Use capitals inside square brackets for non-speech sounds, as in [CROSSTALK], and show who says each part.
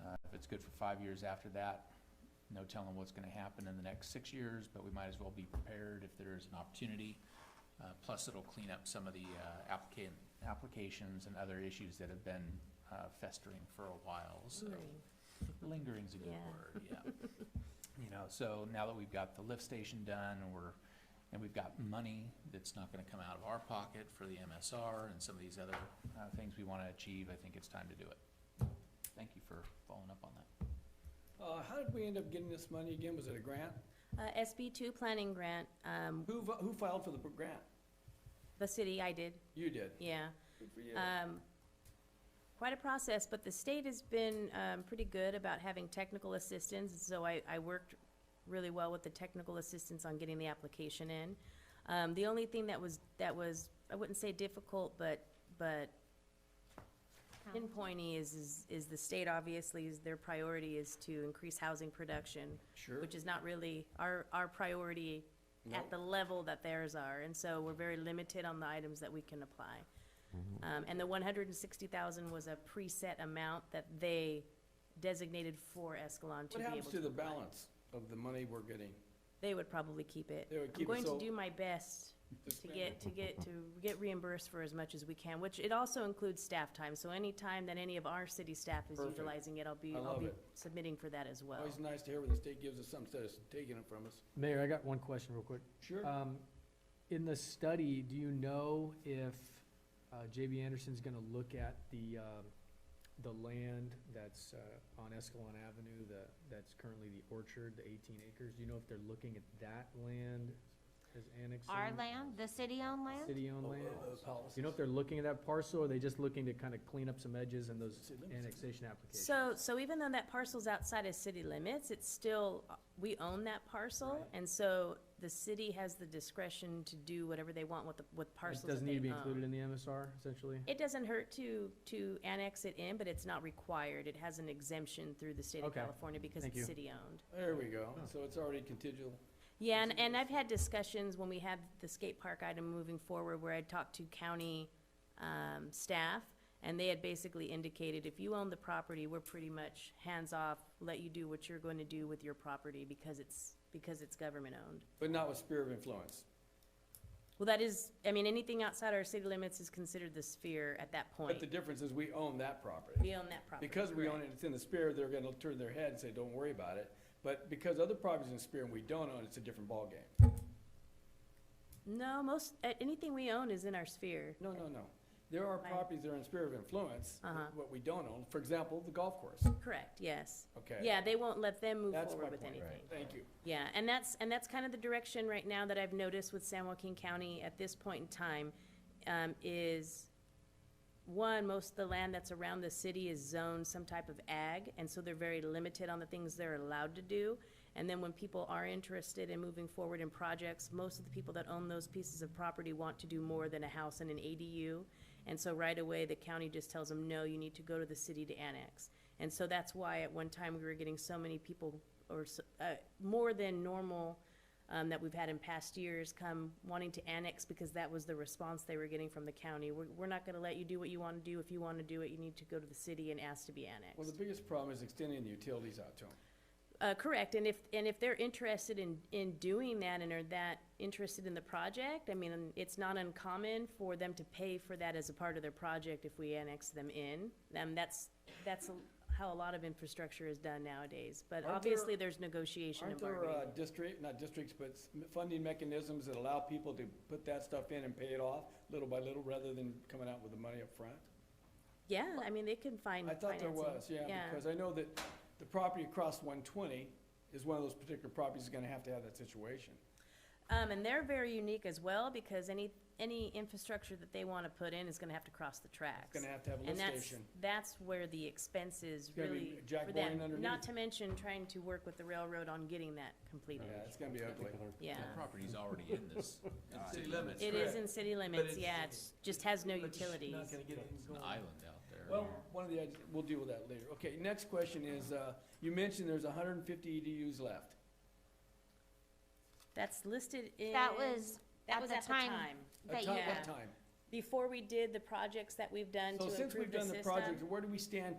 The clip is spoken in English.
Speaker 1: Uh, It's good for five years after that. No telling what's gonna happen in the next six years, but we might as well be prepared if there is an opportunity. Uh, plus, it'll clean up some of the, uh, applicant, applications and other issues that have been, uh, festering for a while, so. Lingering's a good
Speaker 2: Yeah.
Speaker 1: word, yeah.
Speaker 2: [LAUGHS]
Speaker 1: You know, so now that we've got the lift station done, and we're, and we've got money that's not gonna come out of our pocket for the MSR and some of these other, uh, things we wanna achieve, I think it's time to do it. Thank you for following up on that.
Speaker 3: Uh, how did we end up getting this money again? Was it a grant?
Speaker 2: Uh, SB two planning grant, um,
Speaker 3: Who, vo- who filed for the pr- grant?
Speaker 2: the city, I did,
Speaker 3: You did.
Speaker 2: yeah.
Speaker 3: Good for you.
Speaker 2: Um, quite a process, but the state has been, um, pretty good about having technical assistance, and so I, I worked really well with the technical assistance on getting the application in. Um, the only thing that was, that was, I wouldn't say difficult, but, but pinpointy is, is, is the state obviously is, their priority is to increase housing production,
Speaker 3: Sure.
Speaker 2: which is not really our, our priority
Speaker 3: No.
Speaker 2: at the level that theirs are, and so we're very limited on the items that we can apply.
Speaker 3: Mm-hmm.
Speaker 2: Um, and the one hundred and sixty thousand was a preset amount that they designated for Escalon to
Speaker 3: What
Speaker 2: be able
Speaker 3: happens to
Speaker 2: to
Speaker 3: the
Speaker 2: apply.
Speaker 3: balance of the money we're getting?
Speaker 2: They would probably keep it.
Speaker 3: They would keep it,
Speaker 2: I'm
Speaker 3: so-
Speaker 2: going to do my best to get, to get, to get reimbursed for as much as we can, which it also includes staff time, so any time that any of our city staff is
Speaker 3: Perfect.
Speaker 2: utilizing it, I'll be,
Speaker 3: I
Speaker 2: I'll
Speaker 3: love
Speaker 2: be
Speaker 3: it.
Speaker 2: submitting for that as well.
Speaker 3: Always nice to hear when the state gives us something instead of taking it from us.
Speaker 4: Mayor, I got one question real quick.
Speaker 3: Sure.
Speaker 4: Um, in the study, do you know if, uh, JB Anderson's gonna look at the, um, the land that's, uh, on Escalon Avenue, the, that's currently the orchard, the eighteen acres? Do you know if they're looking at that land as annexing?
Speaker 5: Our land, the city-owned land?
Speaker 4: City-owned
Speaker 3: Oh,
Speaker 4: land?
Speaker 3: oh, oh,
Speaker 4: Do you know
Speaker 3: policies.
Speaker 4: if they're looking at that parcel, or are they just looking to kind of clean up some edges in those
Speaker 3: See, let me see.
Speaker 4: annexation applications?
Speaker 2: So, so even though that parcel's outside of city limits, it's still, uh, we own that parcel,
Speaker 4: Right.
Speaker 2: and so the city has the discretion to do whatever they want with the, with parcels
Speaker 4: It
Speaker 2: that
Speaker 4: doesn't need to
Speaker 2: they
Speaker 4: be included
Speaker 2: own.
Speaker 4: in the MSR, essentially?
Speaker 2: It doesn't hurt to, to annex it in, but it's not required, it has an exemption through the state of
Speaker 4: Okay.
Speaker 2: California because
Speaker 4: Thank
Speaker 2: it's
Speaker 4: you.
Speaker 2: city-owned.
Speaker 3: There we go. So it's already contingent.
Speaker 2: Yeah, and,
Speaker 3: Consider
Speaker 2: and
Speaker 3: this.
Speaker 2: I've had discussions when we had the skate park item moving forward, where I talked to county, um, staff, and they had basically indicated, if you own the property, we're pretty much hands-off, let you do what you're going to do with your property, because it's, because it's government-owned.
Speaker 3: But not with sphere of influence.
Speaker 2: Well, that is, I mean, anything outside our city limits is considered the sphere at that
Speaker 3: But the
Speaker 2: point.
Speaker 3: difference is we own that property.
Speaker 2: We own that property.
Speaker 3: Because we own
Speaker 2: correct.
Speaker 3: it, it's in the sphere, they're gonna turn their head and say, don't worry about it. But because other properties in the sphere and we don't own, it's a different ballgame.
Speaker 2: No, most, uh, anything we own is in our sphere.
Speaker 3: No, no, no. There are
Speaker 2: Right.
Speaker 3: properties that are in sphere of influence,
Speaker 2: Uh-huh.
Speaker 3: what we don't own. For example, the golf course.
Speaker 2: Correct, yes.
Speaker 3: Okay.
Speaker 2: Yeah, they won't let them move
Speaker 3: That's my
Speaker 2: forward with
Speaker 3: point.
Speaker 2: anything.
Speaker 3: Thank you.
Speaker 2: Yeah, and that's, and that's kind of the direction right now that I've noticed with San Joaquin County at this point in time, um, is, one, most of the land that's around the city is zoned some type of ag, and so they're very limited on the things they're allowed to do. And then when people are interested in moving forward in projects, most of the people that own those pieces of property want to do more than a house and an ADU. And so right away, the county just tells them, no, you need to go to the city to annex. And so that's why at one time we were getting so many people, or, s- uh, more than normal, um, that we've had in past years come wanting to annex because that was the response they were getting from the county. We're, we're not gonna let you do what you wanna do. If you wanna do it, you need to go to the city and ask to be
Speaker 3: Well, the
Speaker 2: annexed.
Speaker 3: biggest problem is extending the utilities out to them.
Speaker 2: Uh, correct, and if, and if they're interested in, in doing that and are that interested in the project, I mean, it's not uncommon for them to pay for that as a part of their project if we annex them in. Um, that's, that's how a lot of infrastructure is done nowadays, but
Speaker 3: Aren't there-
Speaker 2: obviously there's negotiation
Speaker 3: Aren't
Speaker 2: and
Speaker 3: there,
Speaker 2: bargaining.
Speaker 3: uh, district, not districts, but s- funding mechanisms that allow people to put that stuff in and pay it off little by little rather than coming out with the money up front?
Speaker 2: Yeah, I mean, they can find
Speaker 3: I thought there
Speaker 2: financing.
Speaker 3: was, yeah, because I know that the property across one twenty is one of those particular properties that's gonna have to have that situation.
Speaker 2: Um, and they're very unique as well, because any, any infrastructure that they wanna put in is gonna have to cross the tracks.
Speaker 3: gonna have to have a lift
Speaker 2: And that's,
Speaker 3: station.
Speaker 2: that's where the expense is
Speaker 3: gonna be
Speaker 2: really
Speaker 3: jack
Speaker 2: for
Speaker 3: boring
Speaker 2: them,
Speaker 3: underneath.
Speaker 2: not to mention trying to work with the railroad on getting that completed,
Speaker 3: Yeah, it's gonna be ugly.
Speaker 2: yeah.
Speaker 1: That property's already in this, uh,
Speaker 6: City limits.
Speaker 2: It is in city limits,
Speaker 6: it's-
Speaker 2: yeah, it's, just has no
Speaker 6: But you're
Speaker 2: utilities.
Speaker 6: Not gonna get anything
Speaker 1: an
Speaker 6: going.
Speaker 1: island out there.
Speaker 3: Well, one of the, ideas- we'll deal with that later. Okay, next question is, uh, you mentioned there's hundred and fifty EDUs left.
Speaker 2: That's listed in.
Speaker 5: That was
Speaker 2: that
Speaker 5: at
Speaker 2: was
Speaker 5: the time
Speaker 3: A
Speaker 5: that you,
Speaker 3: time-
Speaker 2: yeah.
Speaker 3: What time?
Speaker 2: Before we did the projects that we've done to
Speaker 3: So since
Speaker 2: improve
Speaker 3: we've
Speaker 2: the
Speaker 3: done the
Speaker 2: system.
Speaker 3: project, where do we stand